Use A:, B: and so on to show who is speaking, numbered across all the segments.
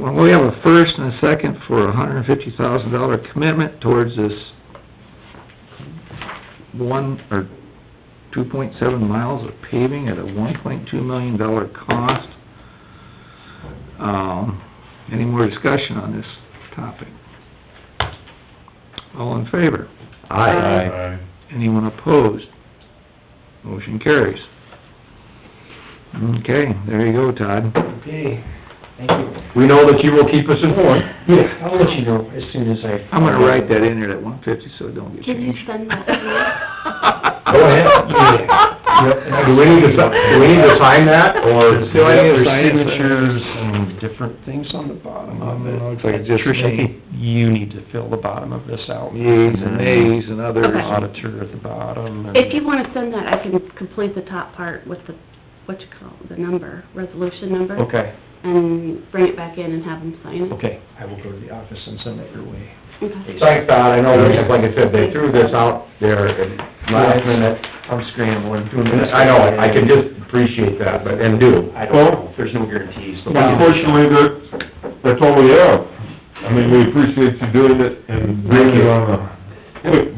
A: Well, we have a first and a second for a hundred and fifty thousand dollar commitment towards this one, or two point seven miles of paving at a one point two million dollar cost. Um, any more discussion on this topic? All in favor?
B: Aye.
A: Anyone opposed? Motion carries. Okay, there you go, Todd.
C: Okay, thank you.
B: We know that you will keep us informed.
C: Yeah, I'll let you know as soon as I...
A: I'm gonna write that in there at one fifty, so it don't get
D: Can you
A: changed.
D: send that to
B: Go ahead.
C: Yep.
B: Do we need to, si- do we need to sign that, or?
C: Still have their
A: Sign it.
C: signatures and different things on the bottom of it.
A: Mm, looks like just
C: Tricia, I
A: me.
C: think you need to fill the bottom of this out.
A: Yeas and nays and others.
C: There's
D: Okay.
C: auditor at the bottom and...
D: If you wanna send that, I can complete the top part with the, what you call, it, the number, resolution number.
C: Okay,
D: And bring it back in and have them sign it.
C: okay, I will go to the office and send that your way.
D: Okay.
B: Thanks, Todd, I know, that, just like I said, they threw this out there at last minute.
C: I'm scrambling.
B: I know, I can just appreciate that, but, and do.
C: I don't know, um, there's no guarantees. but-
E: Unfortunately, that, that's all we have. I mean, we appreciate you doing it and bringing it on a quick,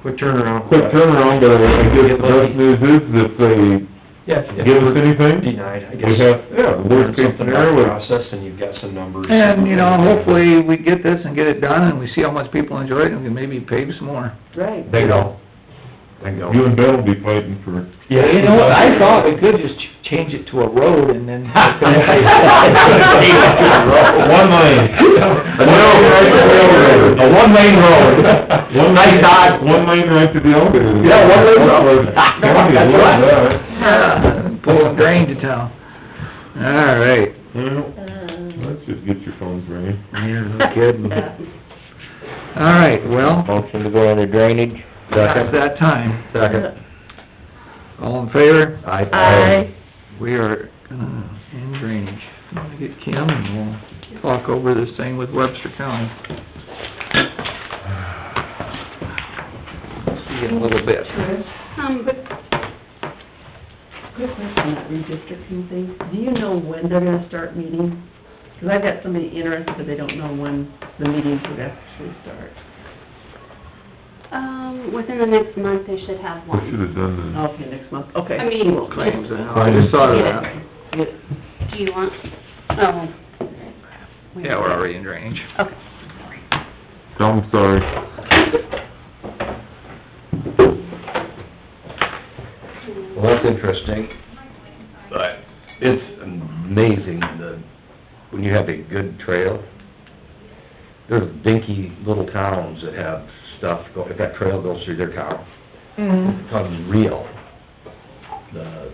C: Quick turnaround.
E: quick turnaround, but I guess the best news is if they
C: Yeah. if-
E: give us anything,
C: Denied, I
E: we
C: guess.
E: have, yeah, the worst case
C: Something about the
E: scenario is
C: Process and you've got some numbers.
A: And, you know, hopefully we get this and get it done and we see how much people enjoy it and we can maybe pave some more.
D: Right.
B: Bingo. Bingo.
E: you and Ben will be fighting for it.
A: Yeah, you know what, I thought we could just ch- change it to a road and then.
B: One lane. A one lane road.
E: One
B: Nice dot.
E: One lane right to the elevator.
B: Yeah, one lane road.
E: County, I love that.
A: Yeah, Pull a drain to town. All right.
E: Well,
A: Um,
E: let's just get your phones ringing.
A: Yeah, no kidding. All right, well,
B: Motion to go into drainage.
A: that's that time.
B: Second.
A: All in favor?
B: Aye.
D: Aye.
A: We are, gonna end drainage. I'm gonna get Kim and we'll talk over this thing with Webster County. See you in a little bit.
D: Um, but
F: Quick question, on that redistricting thing, do you know when they're gonna start meeting? Because I've got somebody interested, but they don't know when the meetings would actually start.
D: Um, within the next month, they should have
E: We should
D: one.
E: have done that.
F: Okay, next month, okay.
D: I mean,
F: cool.
A: Claims, I just thought of that.
D: do you want, oh. crap. Wait.
A: Yeah, we're already in drainage.
D: Okay.
E: I'm sorry.
B: Well, that's interesting. But it's amazing the, when you have a good trail, there's dinky little towns that have stuff, go- if that trail goes through their town,
A: Mm-hmm.
B: it becomes real. The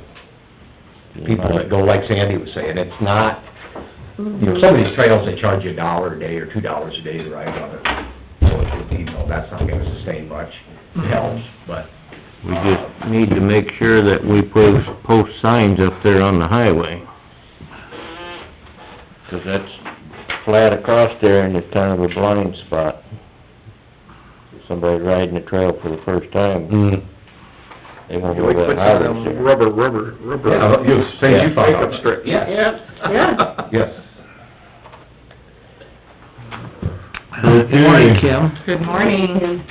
B: people that go, like Sandy was saying, it's not, you know, some of these trails, they charge you a dollar a day or two dollars a day to ride on it. So it's, you know, that's not gonna sustain much, it helps, but. uh,
G: We just need to make sure that we post, post signs up there on the highway. 'Cause that's flat across there and it's kind of a blind spot. Somebody riding the trail for the first time,
B: Mm.
G: they won't know
A: We put
G: what
A: some
G: highway's there.
A: rubber, rubber, rubber.
B: Yeah, but you, say you found out.
A: Pickup strips.
B: Yes,
F: Yeah.
B: yes.
A: Good morning, Kim.
H: Good morning.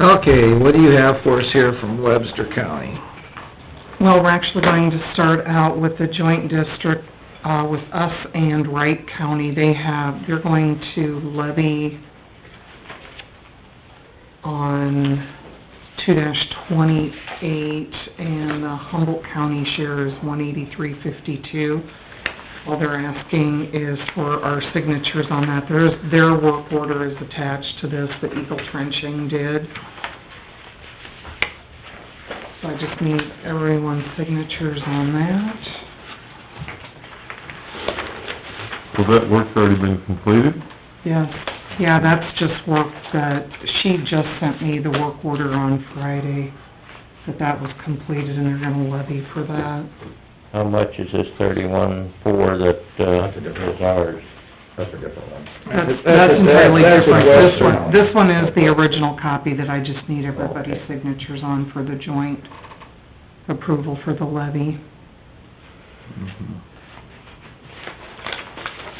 A: Okay, what do you have for us here from Webster County?
H: Well, we're actually going to start out with the joint district, uh, with us and Wright County. They have, they're going to levy on two twenty-eight, and the Humboldt County share is one eighty-three fifty-two. All they're asking is for our signatures on that. There's, their work order is attached to this that Eagle Trenching did. So I just need everyone's signatures on that.
E: Well, that work's already been completed.
H: Yes, yeah, that's just work that, she just sent me the work order on Friday, that that was completed and they're gonna levy for that.
G: How much is this thirty-one four that, uh,
B: That's a different-
G: is ours?
B: That's a different one.
H: That's, that's entirely
A: that's a
H: different. This
A: Western.
H: one, this one is the original copy that I just need everybody's signatures on for the joint approval for the levy.
A: Mhm.